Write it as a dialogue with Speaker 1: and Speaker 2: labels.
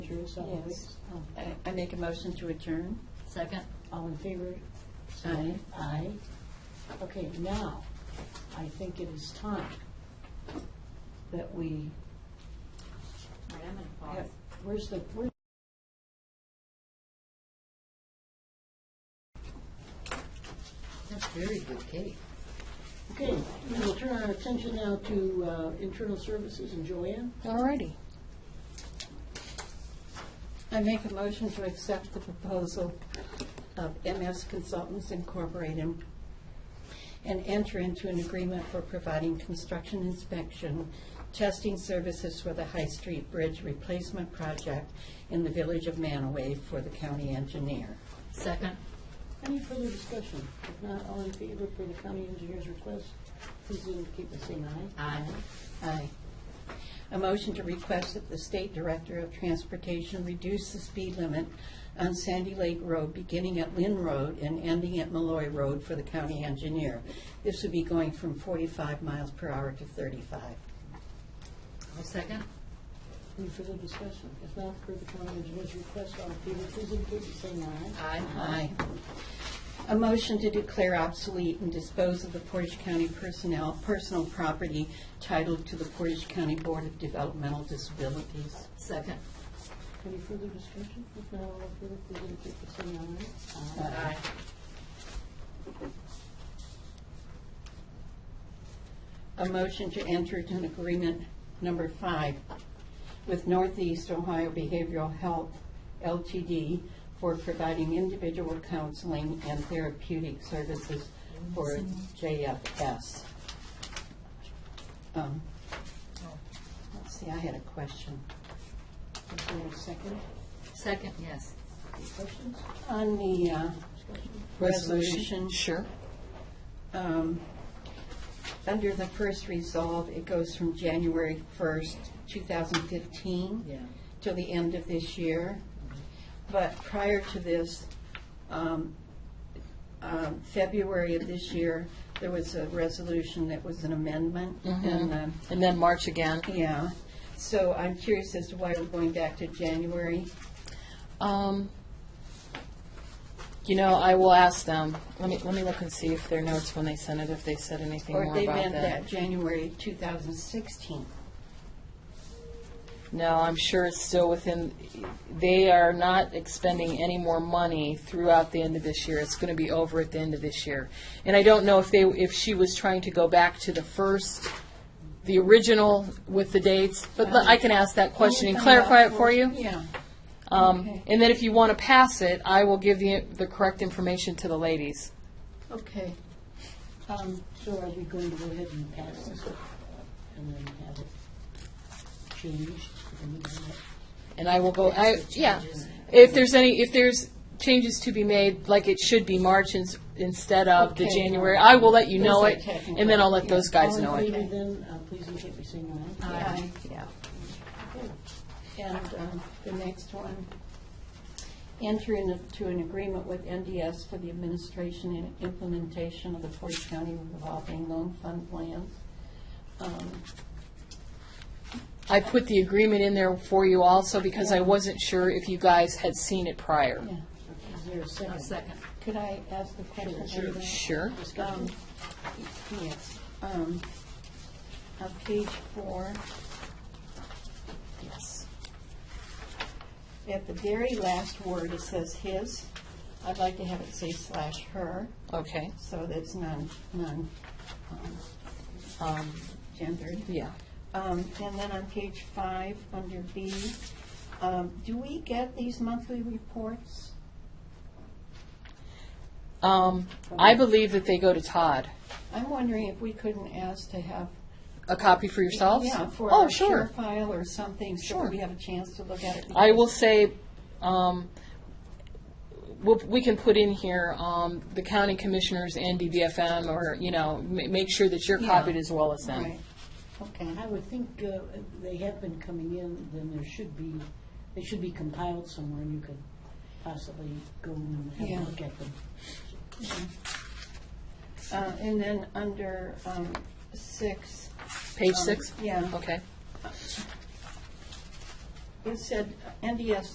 Speaker 1: as always.
Speaker 2: Yes. I- I make a motion to adjourn.
Speaker 3: Second?
Speaker 1: um, All in favor?
Speaker 3: Aye.
Speaker 1: Aye. Okay, now, I think it is time that we,
Speaker 3: All right, I'm going to pause.
Speaker 1: have- where's the, where's
Speaker 3: That's very good cake.
Speaker 1: Okay, we will turn our attention now to uh, internal services and Joanne.
Speaker 4: Alrighty.
Speaker 2: I make a motion to accept the proposal of MS Consultants Incorporated and enter into an agreement for providing construction inspection, testing services for the High Street Bridge Replacement Project in the Village of Manaway for the county engineer.
Speaker 3: Second?
Speaker 1: Any further discussion? If not, all in favor for the county engineer's request, please indicate by saying aye.
Speaker 3: Aye.
Speaker 2: Aye. A motion to request that the State Director of Transportation reduce the speed limit on Sandy Lake Road, beginning at Lynn Road and ending at Malloy Road for the county engineer. This would be going from 45 miles per hour to 35.
Speaker 3: I'll second.
Speaker 1: Any further discussion? If not, for the county engineer's request, all in favor, please indicate by saying aye.
Speaker 3: Aye.
Speaker 2: Aye. A motion to declare obsolete and dispose of the Portage County personnel, personal property titled to the Portage County Board of Developmental Disabilities.
Speaker 3: Second?
Speaker 1: Any further discussion? If not, all in favor, please indicate by saying aye. Uh,
Speaker 3: Aye.
Speaker 2: a motion to enter into an agreement number five with Northeast Ohio Behavioral Health LTD for providing individual counseling and therapeutic services for JFS. Um, Let's see, I had a question.
Speaker 1: Is there a second?
Speaker 3: Second, yes.
Speaker 1: Any questions?
Speaker 2: On the uh,
Speaker 1: Discussion?
Speaker 2: resolution.
Speaker 4: Sure.
Speaker 2: um, Under the first resolve, it goes from January 1st, 2015.
Speaker 3: Yeah.
Speaker 2: Till the end of this year. But prior to this, um, um, February of this year, there was a resolution that was an amendment.
Speaker 4: Mm-hmm.
Speaker 2: And, um,
Speaker 4: And then March again.
Speaker 2: yeah, so I'm curious as to why we're going back to January.
Speaker 4: Um, you know, I will ask them. Let me, let me look and see if their notes when they sent it, if they said anything
Speaker 2: Or
Speaker 4: more
Speaker 2: they
Speaker 4: about
Speaker 2: meant
Speaker 4: that.
Speaker 2: that January 2016.
Speaker 4: No, I'm sure it's still within, they are not expending any more money throughout the end of this year. It's gonna be over at the end of this year. And I don't know if they, if she was trying to go back to the first, the original with the dates, but I can ask that question and clarify it for you.
Speaker 2: Yeah.
Speaker 4: Um,
Speaker 2: Okay.
Speaker 4: and then if you want to pass it, I will give the, the correct information to the ladies.
Speaker 2: Okay.
Speaker 1: Um, So are we going to go ahead and pass this and then have it changed? and then have it-
Speaker 4: And I will go, I,
Speaker 3: the
Speaker 4: yeah.
Speaker 3: changes.
Speaker 4: If there's any, if there's changes to be made, like it should be March ins- instead of the
Speaker 2: Okay.
Speaker 4: January, I will let you
Speaker 2: Those
Speaker 4: know
Speaker 2: are
Speaker 4: it.
Speaker 2: technical.
Speaker 4: And then I'll let those guys
Speaker 1: All in
Speaker 4: know it.
Speaker 1: favor then, uh, please indicate by saying aye.
Speaker 3: Aye.
Speaker 4: Yeah.
Speaker 2: And um, the next one, enter into an agreement with NDS for the administration and implementation of the Portage County revolving loan fund plan. Um,
Speaker 4: I put the agreement in there for you also because I wasn't sure if you guys had seen it prior.
Speaker 2: yeah.
Speaker 1: Is there a
Speaker 3: I'll
Speaker 1: second?
Speaker 3: second.
Speaker 2: Could I ask the question? Sure.
Speaker 4: Sure.
Speaker 1: Discussion?
Speaker 2: Um, Yes. Um, On page four,
Speaker 4: Yes.
Speaker 2: at the very last word, it says his. I'd like to have it say slash her,
Speaker 4: Okay.
Speaker 2: so that's non, non, um,
Speaker 4: Um,
Speaker 2: gendered.
Speaker 4: yeah.
Speaker 2: Um, And then on page five, under B, um, do we get these monthly reports?
Speaker 4: Um, I believe that they go to Todd.
Speaker 2: I'm wondering if we couldn't ask to have.
Speaker 4: A copy for yourselves?
Speaker 2: Yeah, for
Speaker 4: Oh,
Speaker 2: our share
Speaker 4: sure.
Speaker 2: file or something, so
Speaker 4: Sure.
Speaker 2: we have a chance to look at it.
Speaker 4: I will say, um, we'll, we can put in here, um, the county commissioners and DBFM, or, you know, ma- make sure that you're
Speaker 2: Yeah.
Speaker 4: copied as well as them.
Speaker 2: Right, okay.
Speaker 1: I would think uh, they have been coming in, then there should be, they should be compiled somewhere and you could possibly go and have a
Speaker 2: Yeah.
Speaker 1: look at them.
Speaker 2: Uh, And then under um, six.
Speaker 4: Page
Speaker 2: um,
Speaker 4: six?
Speaker 2: Yeah.
Speaker 4: Okay.
Speaker 2: you said NDS